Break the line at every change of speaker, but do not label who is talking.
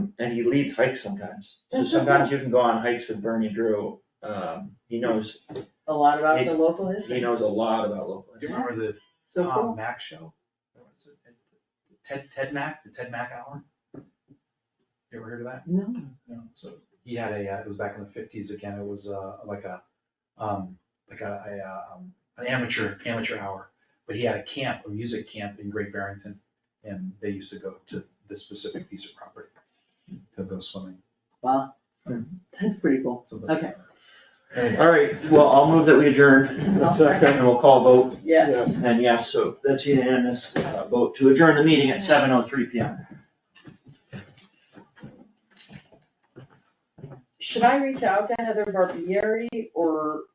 and he leads hikes sometimes, so sometimes you can go on hikes with Bernie Drew, um, he knows,
a lot about the local history,
he knows a lot about local.
Do you remember the
so
Tom
cool.
Mack show? What's it? Ted, Ted Mack, the Ted Mack Hour? You ever heard of that?
No,
No. So he had a, uh, it was back in the fifties again, it was, uh, like a, um, like a, a, uh, um, an amateur, amateur hour. But he had a camp, a music camp in Great Barrington, and they used to go to this specific piece of property to go swimming,
wow, that's pretty cool.
something like
Okay.
that.
Alright, well, I'll move that we adjourn,
I'll second.
and we'll call a vote,
Yeah,
and yes, so that's unanimous, uh, vote to adjourn the meeting at seven oh three P M.
should I reach out to Heather Barbieri or